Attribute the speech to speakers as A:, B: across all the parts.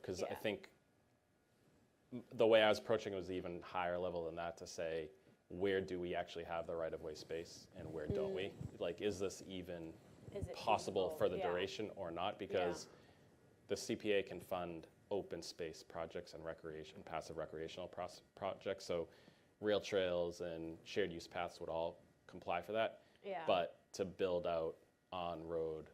A: because I
B: Yeah.
A: think m- the way I was approaching it was even higher level than that to say, where do we actually have the right of way space and where don't we? Like, is this even
B: Is it
A: possible for the
B: Mm. feasible? Yeah.
A: duration or not? Because the CPA can fund open space projects and recreation, passive recreational pros- projects. So rail trails and shared use paths would all comply for that.
B: Yeah.
A: But to build out on-road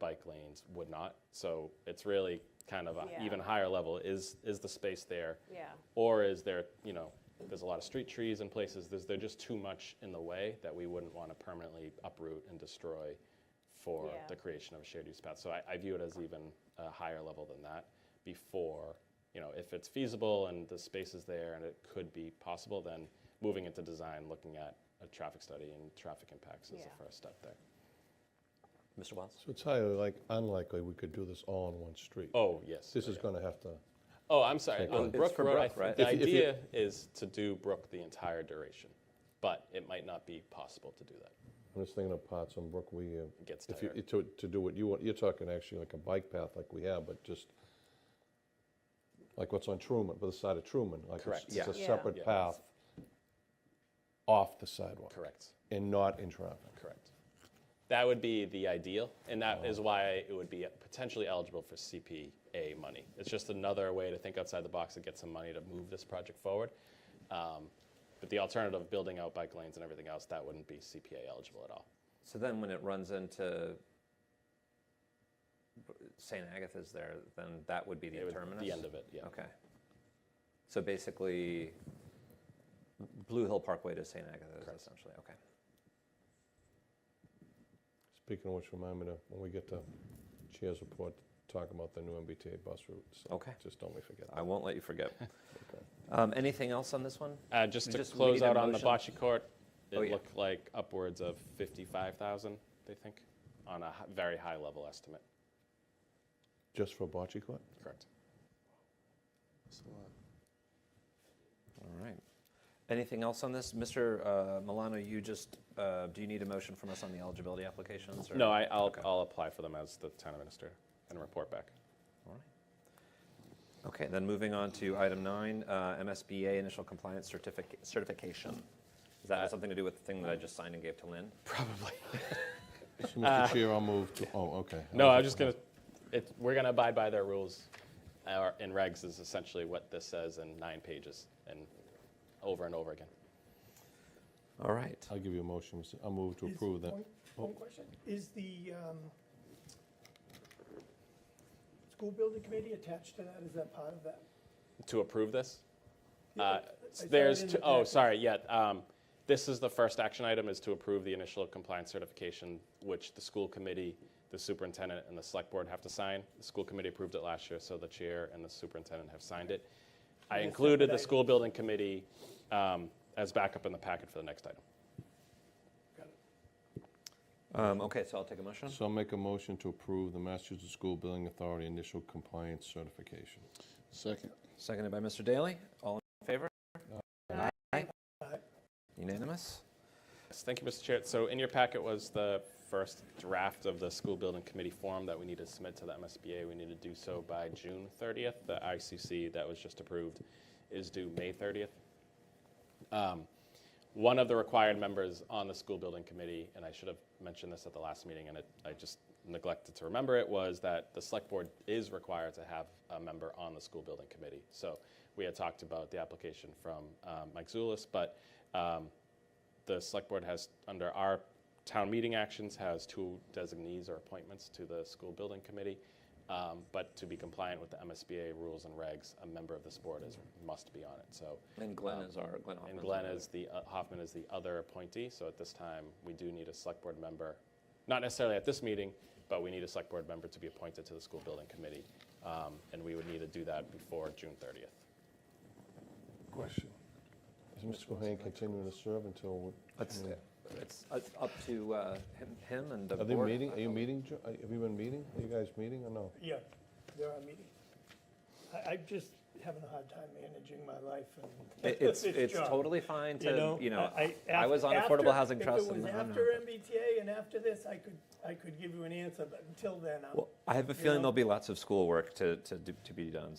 A: bike lanes would not. So it's really kind of a
B: Yeah.
A: even higher level. Is is the space there?
B: Yeah.
A: Or is there, you know, there's a lot of street trees in places. There's there just too much in the way that we wouldn't want to permanently uproot and destroy for
B: Yeah.
A: the creation of a shared use path. So I, I view it as even a higher level than that before, you know, if it's feasible and the space is there and it could be possible, then moving into design, looking at a traffic study and traffic impacts is
B: Yeah.
A: the first step there.
C: Mr. Wiles?
D: So it's highly like, unlikely we could do this all on one street.
A: Oh, yes.
D: This
A: oh,
D: is
A: yeah.
D: going to have to,
A: Oh, I'm sorry. On
C: It's
A: Brook
C: for
A: Road, I
C: Brook,
A: think
C: right?
A: the
D: If you- if you-
A: idea is to do Brook the entire duration, but it might not be possible to do that.
D: I'm just thinking of parts on Brook, we, uh,
A: It gets
D: if you,
A: tired.
D: to, to do what you want, you're talking actually like a bike path like we have, but just like what's on Truman, by the side of Truman, like it's-
A: Correct.
D: it's a
B: Yeah.
D: separate
A: Yeah.
D: path off the sidewalk
A: Correct.
D: and not in traffic.
A: Correct. That would be the ideal, and that
D: Oh.
A: is why it would be potentially eligible for CPA money. It's just another way to think outside the box to get some money to move this project forward. Um, but the alternative of building out bike lanes and everything else, that wouldn't be CPA eligible at all.
C: So then when it runs into St. Agatha's there, then that would be the
A: It would-
C: terminus?
A: The end of it, yeah.
C: Okay. So basically, Blue Hill Parkway to St. Agatha's essentially, okay.
D: Speaking of which, remind me to, when we get to Chair's report, talk about the new MBTA bus route. so
C: Okay.
D: Just don't we forget
C: I
D: that.
C: won't let you forget. Um, Anything else on this one?
A: Uh, just to
C: Just we
A: close
C: need a
A: out on the
C: motion.
A: bocce court, it
C: Oh, yeah.
A: looked like upwards of 55,000, they think, on a hi- very high level estimate.
D: Just for bocce court?
A: Correct.
C: All right. Anything else on this? Mr. uh, Milano, you just, uh, do you need a motion from us on the eligibility applications? or-
A: No, I, I'll,
C: Okay.
A: I'll apply for them as the town administrator and report back.
C: All right. Okay, then moving on to item nine, uh, MSBA initial compliance certific- certification. Does that have something to do with the thing that I just signed and gave to Lynn?
A: Probably.
D: So, Mr. Chair, I'll move to, oh, okay.
A: No, I was just gonna, it, we're gonna abide by their rules. Our, in regs is essentially what this says in nine pages and over and over again.
C: All right.
D: I'll give you a motion, Mr. I'll move to
E: Is-
D: approve that. Oh.
E: one- One question, is the um, school building committee attached to that, is that part of that?
A: To approve this?
E: Yeah,
A: Uh,
E: I saw it
A: There's,
E: in
A: two-
E: the
A: oh,
E: packet.
A: sorry, yeah. um, This is the first action item, is to approve the initial compliance certification, which the school committee, the superintendent, and the select board have to sign. The school committee approved it last year, so the chair and the superintendent have signed it. I
E: Yeah, separate
A: included the
E: item.
A: school building committee um, as backup in the packet for the next item.
E: Got it.
C: Um, okay, so I'll take a motion.
D: So I'll make a motion to approve the Massachusetts School Building Authority Initial Compliance Certification.
F: Second.
C: Seconded by Mr. Daly. All in favor?
B: Aye.
C: Aye.
E: Aye.
C: Unanimous?
A: Yes, Thank you, Mr. Chair. So in your packet was the first draft of the school building committee form that we need to submit to the MSBA. We need to do so by June 30th. The ICC that was just approved is due May 30th. Um, One of the required members on the school building committee, and I should have mentioned this at the last meeting, and it- I just neglected to remember it, was that the select board is required to have a member on the school building committee. So we had talked about the application from um, Mike Zulis, but um, the select board has, under our town meeting actions, has two designees or appointments to the school building committee. Um, But to be compliant with the MSBA rules and regs, a member of this board is, must be on it. So
C: And Glenn is our, Glenn Hoffman.
A: and Glenn is the, uh, Hoffman is the other appointee, so at this time, we do need a select board member, not necessarily at this meeting, but we need a select board member to be appointed to the school building committee, um, and we would need to do that before June 30th.
D: Question. Is Mr. Cohen continuing to serve until?
C: Let's-
D: I mean,
C: It's it's up to uh, him- him and the
D: Are
C: board.
D: they meeting, are you meeting, Jo- are- have you been meeting? Are you guys meeting or no?
E: Yeah, there are meetings. I, I'm just having a hard time managing my life and.
C: It- It's,
E: this
C: it's
E: job,
C: totally fine to, you know, I
E: af-
C: was on
E: after-
C: Affordable Housing Trust.
E: If it
C: and
E: was
C: I'm
E: after
C: not-
E: MBTA and after this, I could, I could give you an answer, but until then, I'm.
C: Well, I have a
E: you
C: feeling
E: know?
C: there'll be lots of schoolwork to, to, do- to be done,